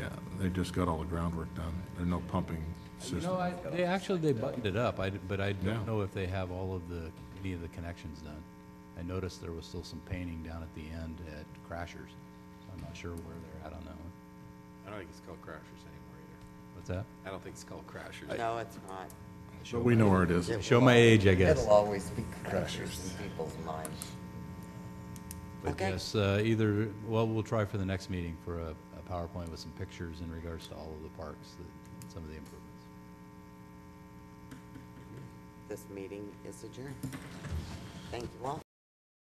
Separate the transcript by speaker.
Speaker 1: They just got all the groundwork done. There are no pumping
Speaker 2: You
Speaker 1: system.
Speaker 2: know, I, they actually, they buttoned it up, I, d- but I
Speaker 1: Yeah.
Speaker 2: don't know if they have all of the, any of the connections done. I noticed there was still some painting down at the end at Crashers, so I'm not sure where they're at on that one.
Speaker 3: I don't think it's called Crashers anymore either.
Speaker 2: What's that?
Speaker 3: I don't think it's called Crashers.
Speaker 4: No, it's not.
Speaker 1: But we know where it is.
Speaker 4: It
Speaker 2: Show
Speaker 4: will
Speaker 2: my
Speaker 4: al-
Speaker 2: age, I guess.
Speaker 4: It'll always be crashes in people's minds.
Speaker 2: But
Speaker 4: Okay.
Speaker 2: yes, uh, either, well, we'll try for the next meeting for a, a PowerPoint with some pictures in regards to all of the parks, that- some of the improvements.
Speaker 4: This meeting is adjourned. Thank you all.